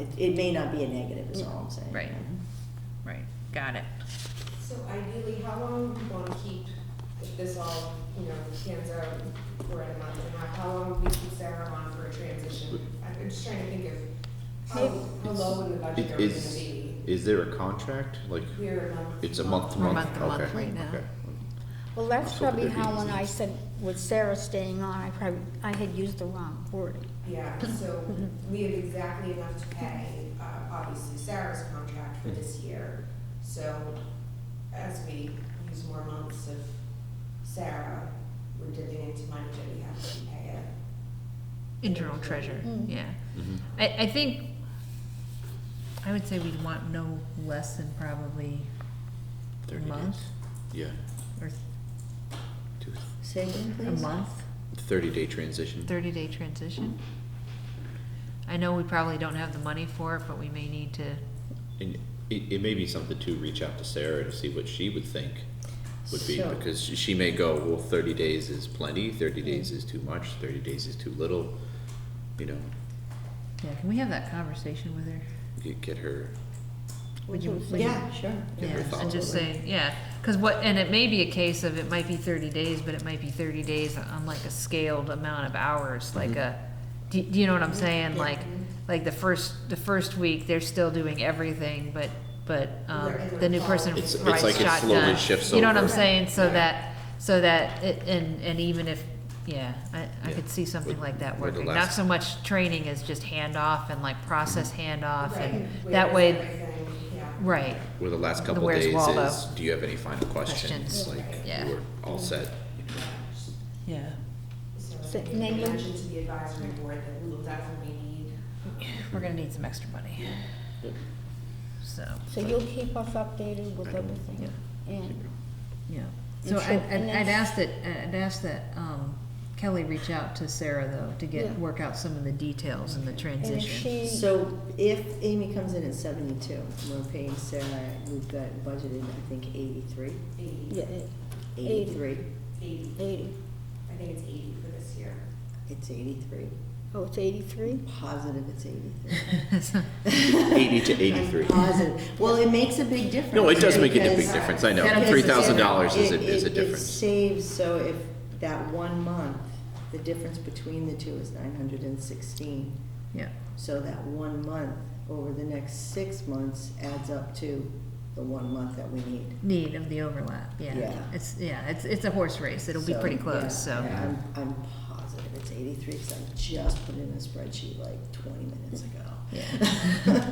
it, it may not be a negative is all I'm saying. Right. Right, got it. So ideally, how long do you want to keep, if this all, you know, pans out, we're at a month and a half, how long do we keep Sarah on for a transition? I'm just trying to think of how, how low in the budget are we gonna Is, be? is there a contract? Like, We're a month. it's a month to We're month? month to month Okay, right now. okay. Well, that's So would probably there be how when I reasons? said with Sarah staying on, I probably, I had used the wrong word. Yeah, so we have exactly enough to pay, uh, obviously Sarah's contract for this year. So as we use more months of Sarah, we're dipping into money that we have to pay it. Internal treasure, Mm. yeah. Mhm. I, I think, I would say we'd want no less than probably a 30 month, days. Yeah, or two- Say again, a please. month, thirty-day transition. thirty-day transition. I know we probably don't have the money for it, but we may need to, And it, it may be something to reach out to Sarah to see what she would think would be, So- because she- she may go, well, thirty days is plenty, thirty days is too much, thirty days is too little. You know, yeah, can we have that conversation with her? you get her, Would you- would you- Yeah, sure. Get her Yeah, and thoughts. just say, yeah, cause what, and it may be a case of, it might be thirty days, but it might be thirty days on like a scaled amount of hours, like Mhm. a, do, do you know what I'm saying, Yeah. like, like the first, the first week, they're still doing everything, but, but, um, Right. the new person It's- it's rides like it shotgun. slowly shifts You know what I'm over. saying, so Yeah. that, so that, it- and, and even if, yeah, I, I Yeah. could see something With- like that with the working, not last- so much training as just handoff and like process Mm-hmm. handoff, and Right, that where's way, everything, yeah. right, where the last The couple Where's days Waldo? is, do you have any final questions? Questions. Like, Yeah. we're all set. yeah. So So, I name think and- mention to the advisory board that we will definitely need. We're gonna need some extra money. So, So you'll keep us updated with everything, and, yeah. And So I'd, so- I'd and I'd that's- ask that, I'd ask that, um, Kelly reach out to Sarah though, to Yeah. get, work out some of the details in the and if transition. she. So if Amy comes in at seventy-two, we're paying Sarah, we've got budgeted, I think, eighty-three, Eighty, Yeah, it- Eighty. eighty-three. eighty, eighty. I think it's eighty for this year. It's eighty-three. Oh, it's eighty-three? Positive it's eighty-three. So- 80 to 83. I'm Positive. Well, it makes a big difference. No, it does make a di- big because- difference, I know, Yeah, because three thousand dollars is a, It- is a it- It difference. saves, so if that one month, the difference between the two is nine hundred and sixteen. Yeah, So that one month over the next six months adds up to the one month that we need. need of the overlap, Yeah. yeah. It's, yeah, it's, it's a horse race, it'll be So, pretty yeah, close, so. yeah, I'm, I'm positive it's eighty-three, because I just put in a spreadsheet like twenty minutes ago. Yeah.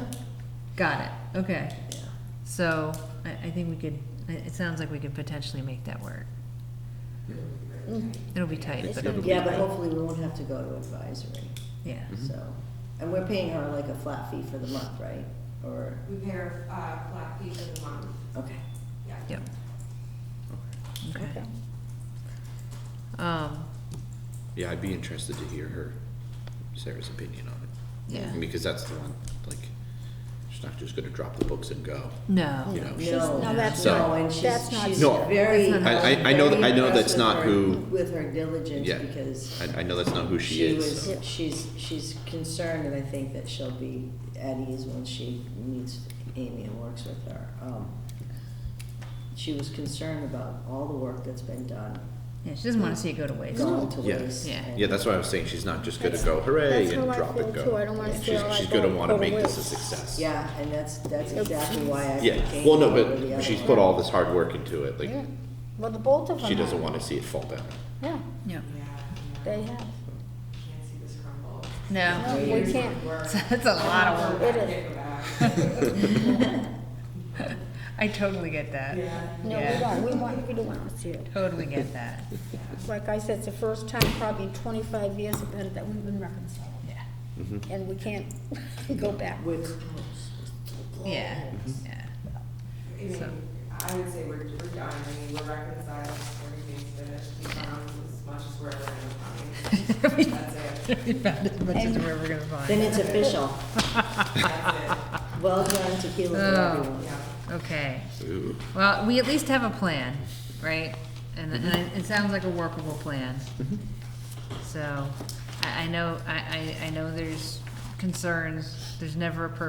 Got it, okay. Yeah. So I, I think we could, it, it sounds like we could potentially make that work. Mm. It'll be tight, It's but, gonna it'll- be- Yeah, but hopefully we won't have to go to advisory, yeah. Mhm. so, and we're paying her like a flat fee for the month, right? Or, We pay her, uh, flat fee for the month, okay. yeah. Yep. Okay. Okay. Um, Yeah, I'd be interested to hear her, Sarah's opinion on it. yeah, Because that's the one, like, she's not just gonna drop the books and go. no. You know, She's- no, that's So- No, not, and she's, that's not. she's No. very. That's not- I- I- I know that- I know that's not very impressed with who- her- With her diligence, Yeah. because I, I know that's not who she she is, was, so. she's, she's concerned, and I think that she'll be at ease when she meets Amy and works with her. Um, She was concerned about all the work that's been done, Yeah, she doesn't want to see it go to waste. going to Yeah. waste. Yeah. and- Yeah, that's why I was saying, she's not just gonna That's- go hooray that's how and I drop feel, and go. too. I don't wanna feel She's- like She's gonna I'll wanna go to make this a waste. success. Yeah, and that's, that's exactly why I Yeah, became. well, no, over the but other she's one. put all this hard work into it, Yeah. like, Well, the both of them. she doesn't have. wanna see it fall down. Yeah, Yeah. Yeah, yeah. they have. Can't see this crumble. No, No, we can't. that's a lot of work. It is. I totally get that. Yeah. No, we Yeah. don't, we want, we don't want to see it. Totally get that. Like I said, it's the first time probably in twenty-five years about it that we've been reconciled. Yeah. Mm-hmm. And we can't go back. We're close. Yeah. Yeah. I mean, I would say we're, we're done, I mean, we're reconciled, everything's finished, we found as much as we're ever gonna find. That's it, We found as much as we're ever gonna Then find. it's official, that's well done tequila for Oh. it, everyone. yeah. Okay. Ooh. Well, we at least have a plan, right? And, and I- it sounds like a Mm-hmm. workable plan. So, I, I know, I, I, I know there's concerns. There's never a perfect